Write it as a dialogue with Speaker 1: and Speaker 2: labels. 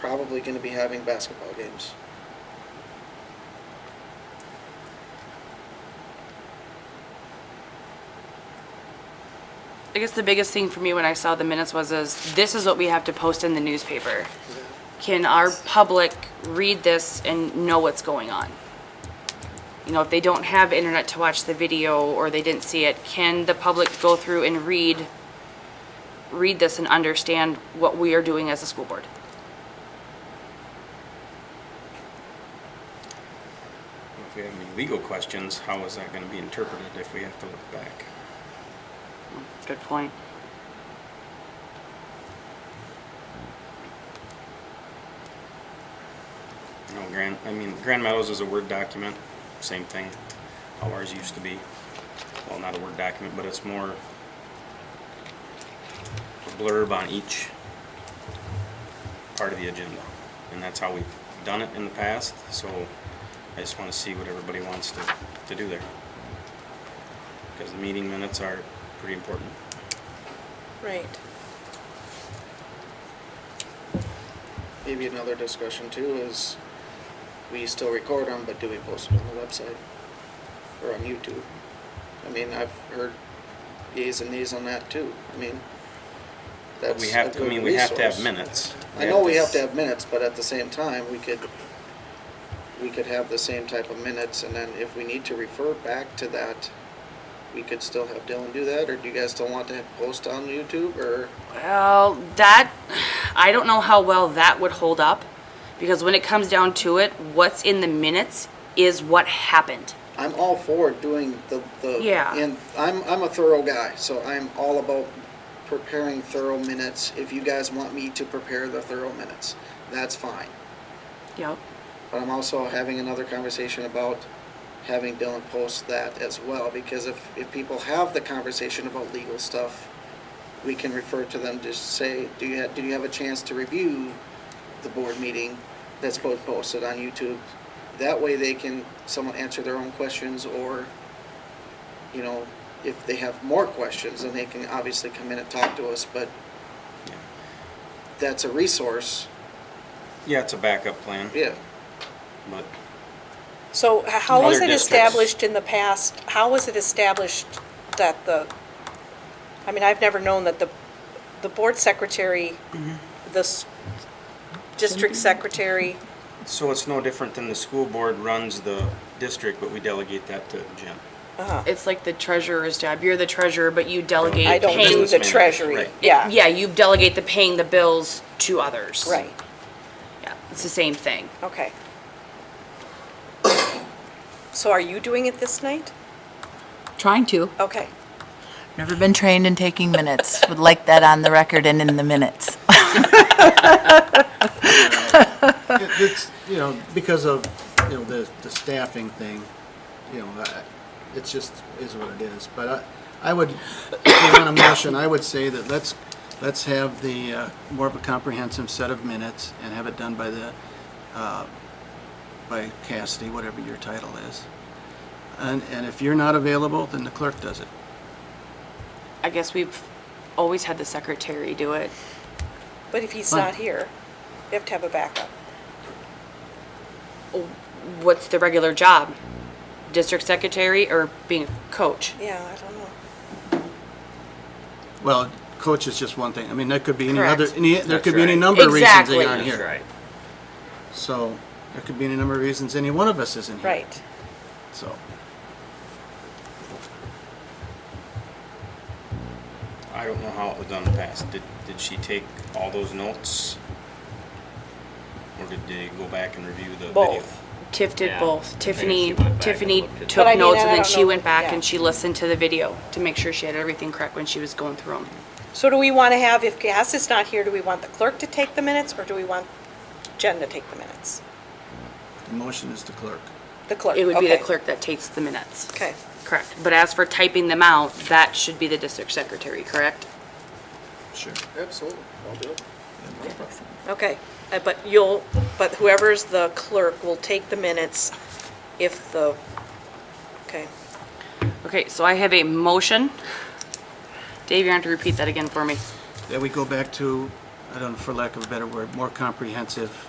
Speaker 1: probably gonna be having basketball games.
Speaker 2: I guess the biggest thing for me when I saw the minutes was is this is what we have to post in the newspaper. Can our public read this and know what's going on? You know, if they don't have internet to watch the video or they didn't see it, can the public go through and read read this and understand what we are doing as a school board?
Speaker 3: If we have any legal questions, how is that gonna be interpreted if we have to look back?
Speaker 2: Good point.
Speaker 3: You know, Grand, I mean, Grand Meadows is a Word document, same thing, how ours used to be. Well, not a Word document, but it's more a blurb on each part of the agenda. And that's how we've done it in the past, so I just wanna see what everybody wants to, to do there. Because the meeting minutes are pretty important.
Speaker 4: Right.
Speaker 1: Maybe another discussion too is, we still record them, but do we post them on the website? Or on YouTube? I mean, I've heard yeas and nays on that too, I mean,
Speaker 3: But
Speaker 1: that's
Speaker 3: we
Speaker 1: a
Speaker 3: have to, I
Speaker 1: good
Speaker 3: mean, we have to have
Speaker 1: resource.
Speaker 3: minutes.
Speaker 1: I know we have
Speaker 3: s-
Speaker 1: to have minutes, but at the same time, we could, we could have the same type of minutes, and then if we need to refer back to that, we could still have Dylan do that, or do you guys still want to post on YouTube, or?
Speaker 2: Well, that, I don't know how well that would hold up, because when it comes down to it, what's in the minutes is what happened.
Speaker 1: I'm all for doing the, the.
Speaker 2: Yeah.
Speaker 1: And I'm, I'm a thorough guy, so I'm all about preparing thorough minutes. If you guys want me to prepare the thorough minutes, that's fine.
Speaker 2: Yep.
Speaker 1: But I'm also having another conversation about having Dylan post that as well, because if, if people have the conversation about legal stuff, we can refer to them to say, do you have, do you have a chance to review the board meeting that's both posted on YouTube? That way they can, someone answer their own questions or, you know, if they have more questions, then they can obviously come in and talk to us, but
Speaker 3: Yeah.
Speaker 1: that's a resource,
Speaker 3: Yeah, it's a backup plan,
Speaker 1: yeah.
Speaker 3: but
Speaker 4: So h- how was
Speaker 3: Other
Speaker 4: it
Speaker 3: districts.
Speaker 4: established in the past, how was it established that the, I mean, I've never known that the, the board secretary, the s- district secretary,
Speaker 3: So it's no different than the school board runs the district, but we delegate that to Jim.
Speaker 2: It's like the treasurer's job. You're the treasurer, but you delegate
Speaker 4: I don't do
Speaker 2: paying.
Speaker 4: the
Speaker 3: Business manager,
Speaker 4: treasury,
Speaker 3: right.
Speaker 4: yeah,
Speaker 2: Yeah, you delegate the paying the bills to others.
Speaker 4: right,
Speaker 2: Yeah, it's the same thing.
Speaker 4: okay. So are you doing it this night?
Speaker 5: Trying to.
Speaker 4: Okay,
Speaker 5: Never been trained in taking minutes. Would like that on the record and in the minutes.
Speaker 6: It- It's, you know, because of, you know, the, the staffing thing, you know, I- it's just, is what it is. But I, I would, if you want a motion, I would say that let's, let's have the, uh, more of a comprehensive set of minutes and have it done by the, uh, by Cassidy, whatever your title is. And, and if you're not available, then the clerk does it.
Speaker 2: I guess we've always had the secretary do it.
Speaker 4: but if he's
Speaker 6: Fine.
Speaker 4: not here, you have to have a backup.
Speaker 2: What's the regular job? District secretary or being a coach?
Speaker 4: Yeah, I don't know.
Speaker 6: Well, coach is just one thing. I mean, that could be any other,
Speaker 2: Correct.
Speaker 6: any, there could be any
Speaker 3: That's right.
Speaker 6: number of reasons
Speaker 2: Exactly.
Speaker 6: they aren't here. So, there could be any number of reasons any one of us isn't here.
Speaker 4: Right,
Speaker 6: So,
Speaker 3: I don't know how it was done in the past. Did, did she take all those notes? Or did they go back and review the video?
Speaker 4: both.
Speaker 2: Tiff did
Speaker 7: Yeah.
Speaker 2: both.
Speaker 7: I think
Speaker 2: Tiffany,
Speaker 7: she went back and
Speaker 2: Tiffany
Speaker 7: looked at
Speaker 2: took
Speaker 4: But I mean,
Speaker 2: notes
Speaker 4: I
Speaker 2: and then
Speaker 4: don't
Speaker 2: she
Speaker 4: know
Speaker 2: went
Speaker 4: that-
Speaker 2: back
Speaker 4: yeah.
Speaker 2: and she listened to the video to make sure she had everything correct when she was going through them.
Speaker 4: So do we want to have, if Cass is not here, do we want the clerk to take the minutes, or do we want Jen to take the minutes?
Speaker 6: the motion is the clerk.
Speaker 4: The clerk,
Speaker 2: It would be the
Speaker 4: Uh, okay.
Speaker 2: clerk that takes the minutes.
Speaker 4: Okay,
Speaker 2: Correct. But as for typing them out, that should be the district secretary, correct?
Speaker 6: Sure.
Speaker 1: Absolutely, I'll do it.
Speaker 4: okay. Uh, But you'll, but whoever's the clerk will take the minutes if the, okay.
Speaker 2: Okay, so I have a motion. Dave, you're going to repeat that again for me.
Speaker 6: Then we go back to uh, I don't know, for lack of a better word, more comprehensive